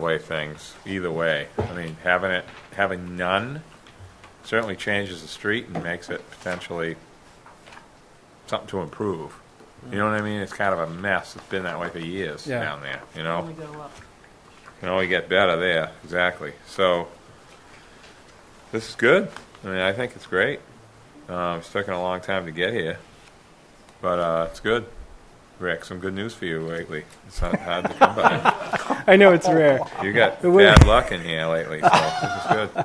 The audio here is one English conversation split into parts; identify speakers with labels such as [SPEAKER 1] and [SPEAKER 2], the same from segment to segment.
[SPEAKER 1] way things, either way. I mean, having it, having none certainly changes the street and makes it potentially something to improve. You know what I mean? It's kind of a mess. It's been that way for years
[SPEAKER 2] Yeah.
[SPEAKER 1] down there, you know?
[SPEAKER 3] we go up.
[SPEAKER 1] can only get better there, exactly. So, this is good. I mean, I think it's great. Um, it's taken a long time to get here, but uh, it's good. Rick, some good news for you lately. It's not hard to come by.
[SPEAKER 2] I know it's rare.
[SPEAKER 1] You got
[SPEAKER 2] It would-
[SPEAKER 1] bad luck in here lately, so this is good.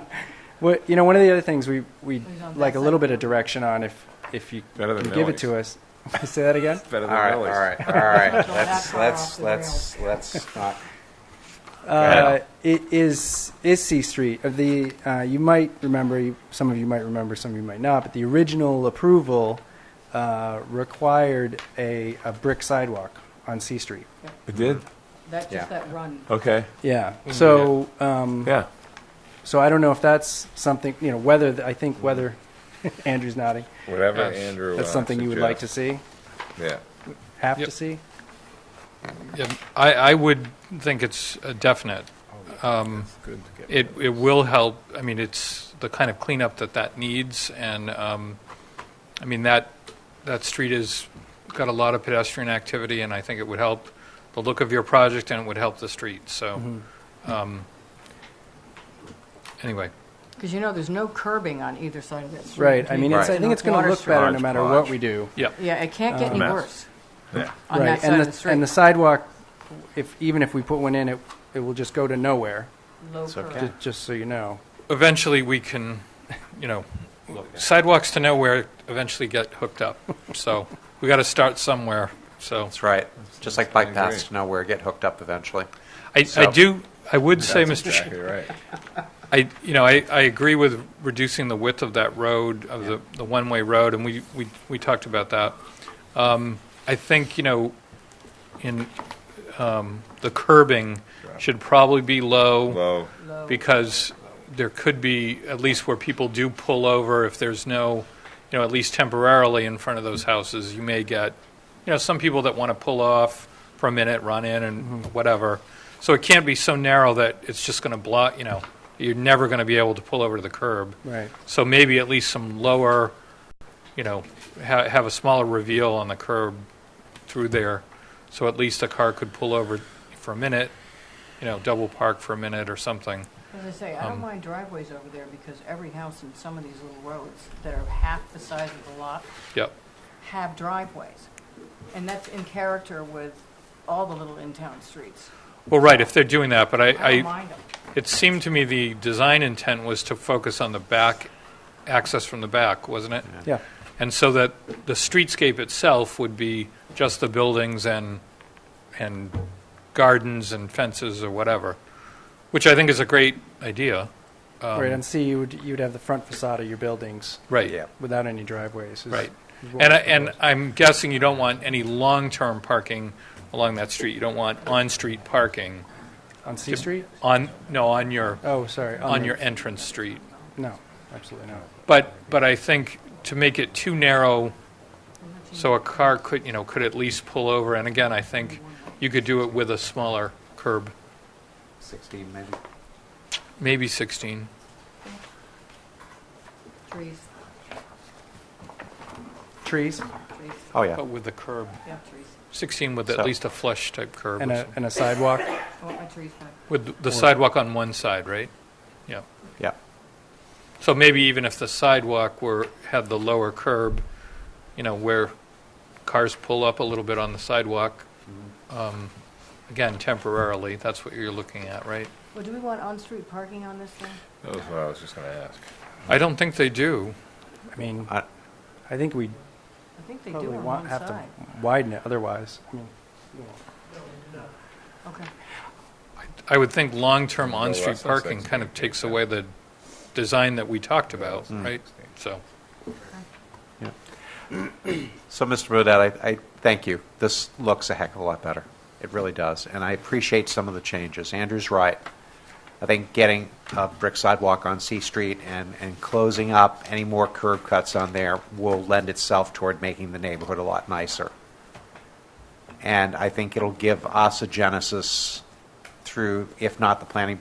[SPEAKER 2] What you know, one of the other things we we
[SPEAKER 3] Who's on
[SPEAKER 2] like
[SPEAKER 3] that
[SPEAKER 2] a little bit of direction on if if you
[SPEAKER 1] Better than
[SPEAKER 2] can give it to us. Say that again.
[SPEAKER 1] Better than
[SPEAKER 4] All right, all
[SPEAKER 1] Millie's.
[SPEAKER 4] right, all right.
[SPEAKER 3] Don't
[SPEAKER 4] Let's,
[SPEAKER 3] back
[SPEAKER 4] let's,
[SPEAKER 3] off the
[SPEAKER 4] let's, let's not.
[SPEAKER 2] Uh, it is is C Street of the. Uh, you might remember. you- Some of you might remember. Some of you might not. But the original approval uh, required a, a brick sidewalk on C Street.
[SPEAKER 1] It did?
[SPEAKER 3] That,
[SPEAKER 4] Yeah.
[SPEAKER 3] just that run.
[SPEAKER 1] Okay,
[SPEAKER 2] Yeah.
[SPEAKER 1] Mm-hmm.
[SPEAKER 2] So um,
[SPEAKER 1] yeah.
[SPEAKER 2] so I don't know if that's something you know whether the, I think whether Andrew's nodding.
[SPEAKER 1] Whatever Andrew
[SPEAKER 2] That's
[SPEAKER 1] uh,
[SPEAKER 2] something you would like to
[SPEAKER 1] suggests.
[SPEAKER 2] see.
[SPEAKER 1] Yeah.
[SPEAKER 2] Have
[SPEAKER 5] Yep.
[SPEAKER 2] to see.
[SPEAKER 5] Yeah, I, I would think it's a definite. Um, It, it will help, I mean, it's the kind of cleanup that that needs, and, um, I mean, that, that street has got a lot of pedestrian activity, and I think it would help the look of your project, and it would help the street, so, um, anyway.
[SPEAKER 3] Because you know, there's no curbing on either side of that street.
[SPEAKER 2] Right. I mean, it's, I
[SPEAKER 3] There's
[SPEAKER 2] think
[SPEAKER 3] no
[SPEAKER 2] it's going
[SPEAKER 3] water
[SPEAKER 2] to look
[SPEAKER 3] stream.
[SPEAKER 2] better no matter what
[SPEAKER 4] Hodgepodge.
[SPEAKER 2] we do.
[SPEAKER 3] Yeah, it can't get any
[SPEAKER 1] Mess.
[SPEAKER 3] worse
[SPEAKER 1] Yeah.
[SPEAKER 3] on
[SPEAKER 2] right.
[SPEAKER 3] that side
[SPEAKER 2] and
[SPEAKER 3] of
[SPEAKER 2] the,
[SPEAKER 3] the street.
[SPEAKER 2] And the sidewalk, if even if we put one in, it it will just go to nowhere.
[SPEAKER 3] Low
[SPEAKER 4] okay.
[SPEAKER 3] curb.
[SPEAKER 2] ju- Just so you know.
[SPEAKER 5] Eventually, we can, you know, sidewalks to nowhere eventually get hooked up, so, we got to start somewhere, so.
[SPEAKER 4] That's right. Just like bike
[SPEAKER 1] kinda
[SPEAKER 4] paths to nowhere get hooked up eventually.
[SPEAKER 5] I, I
[SPEAKER 4] So-
[SPEAKER 5] do, I would say,
[SPEAKER 1] That's
[SPEAKER 5] Mr. Chair.
[SPEAKER 1] Exactly right.
[SPEAKER 5] I, you know, I, I agree with reducing the width of that road, of the, the one-way road, and we, we, we talked about that. Um, I think, you know, in, um, the curbing should probably be low
[SPEAKER 1] Low,
[SPEAKER 3] Low.
[SPEAKER 5] because there could be, at least where people do pull over, if there's no, you know, at least temporarily in front of those houses, you may get, you know, some people that want to pull off for a minute, run in and whatever. So it can't be so narrow that it's just going to block, you know, you're never going to be able to pull over to the curb.
[SPEAKER 2] Right.
[SPEAKER 5] So maybe at least some lower, you know, ha- have a smaller reveal on the curb through there, so at least a car could pull over for a minute, you know, double park for a minute or something.
[SPEAKER 3] As I say, I
[SPEAKER 2] Um,
[SPEAKER 3] don't mind driveways over there because every house in some of these little roads that are half the size of the lot
[SPEAKER 5] Yep.
[SPEAKER 3] have driveways. And that's in character with all the little in-town streets.
[SPEAKER 5] Well, right, if they're doing that, but I,
[SPEAKER 3] I don't
[SPEAKER 5] I,
[SPEAKER 3] mind them.
[SPEAKER 5] it seemed to me the design intent was to focus on the back, access from the back, wasn't it?
[SPEAKER 2] Yeah.
[SPEAKER 5] And so that the streetscape itself would be just the buildings and, and gardens and fences or whatever, which I think is a great idea. Um,
[SPEAKER 2] right. And see, you would you'd have the front facade of your buildings
[SPEAKER 5] Right.
[SPEAKER 4] Yeah.
[SPEAKER 2] without any driveways. is-
[SPEAKER 5] Right.
[SPEAKER 2] is what
[SPEAKER 5] And, I-
[SPEAKER 2] we're
[SPEAKER 5] and
[SPEAKER 2] proposing.
[SPEAKER 5] I'm guessing you don't want any long-term parking along that street. You don't want on-street parking
[SPEAKER 2] on C Street.
[SPEAKER 5] on, no, on your,
[SPEAKER 2] Oh, sorry.
[SPEAKER 5] on
[SPEAKER 2] the-
[SPEAKER 5] your entrance street.
[SPEAKER 2] No, absolutely not.
[SPEAKER 5] But, but I think to make it too narrow, so a car could, you know, could at least pull over, and again, I think you could do it with a smaller curb,
[SPEAKER 4] 16 maybe.
[SPEAKER 5] maybe 16.
[SPEAKER 3] Trees,
[SPEAKER 2] Trees
[SPEAKER 3] trees,
[SPEAKER 4] Oh, yeah.
[SPEAKER 5] But with the curb,
[SPEAKER 3] yeah, trees.
[SPEAKER 5] 16 with at
[SPEAKER 4] So-
[SPEAKER 5] least a flush type curb, or
[SPEAKER 2] and a
[SPEAKER 5] something.
[SPEAKER 2] and a sidewalk.
[SPEAKER 3] I want my trees back.
[SPEAKER 5] with the sidewalk on one side, right? Yeah.
[SPEAKER 4] Yeah.
[SPEAKER 5] So maybe even if the sidewalk were, had the lower curb, you know, where cars pull up a little bit on the sidewalk,
[SPEAKER 4] Mm-hmm.
[SPEAKER 5] um, again, temporarily, that's what you're looking at, right?
[SPEAKER 3] Well, do we want on-street parking on this thing?
[SPEAKER 1] that was what I was just gonna ask.
[SPEAKER 5] I don't think they do.
[SPEAKER 2] I mean,
[SPEAKER 4] I-
[SPEAKER 2] I think we
[SPEAKER 3] I think they do
[SPEAKER 2] probably
[SPEAKER 3] on
[SPEAKER 2] want
[SPEAKER 3] one
[SPEAKER 2] have to
[SPEAKER 3] side.
[SPEAKER 2] widen it otherwise. I mean,
[SPEAKER 3] Okay.
[SPEAKER 5] I would think long-term
[SPEAKER 1] No
[SPEAKER 5] on-street
[SPEAKER 1] less than
[SPEAKER 5] parking
[SPEAKER 1] six,
[SPEAKER 5] kind of
[SPEAKER 1] maybe,
[SPEAKER 5] takes
[SPEAKER 1] yeah.
[SPEAKER 5] away the design that we talked about, right? So,
[SPEAKER 4] So, Mr. Burdette, I, I thank you. This looks a heck of a lot better. It really does. And I appreciate some of the changes. Andrew's right. I think getting a brick sidewalk on C Street and, and closing up any more curb cuts on there will lend itself toward making the neighborhood a lot nicer. And I think it'll give us a genesis through, if not the planning board,